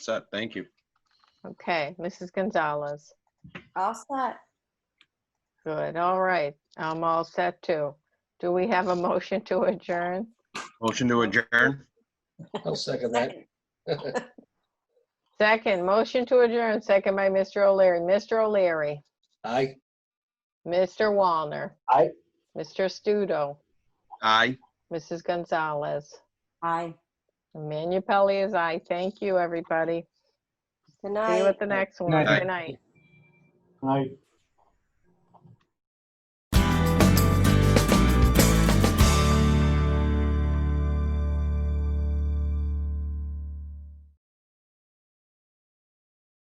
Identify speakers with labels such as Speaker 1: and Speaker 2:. Speaker 1: set. Thank you.
Speaker 2: Okay, Mrs. Gonzalez.
Speaker 3: All set.
Speaker 2: Good, all right. I'm all set too. Do we have a motion to adjourn?
Speaker 1: Motion to adjourn.
Speaker 4: I'll second that.
Speaker 3: Second.
Speaker 2: Second, motion to adjourn, second by Mr. O'Leary. Mr. O'Leary,
Speaker 4: Aye.
Speaker 2: Mr. Wallner.
Speaker 4: Aye.
Speaker 2: Mr. Studo,
Speaker 1: Aye.
Speaker 2: Mrs. Gonzalez.
Speaker 3: Aye.
Speaker 2: Manu Pelley is aye. Thank you, everybody. See
Speaker 3: Good
Speaker 2: you
Speaker 3: night.
Speaker 2: at the next one.
Speaker 1: Aye.
Speaker 2: Good night.
Speaker 4: Aye.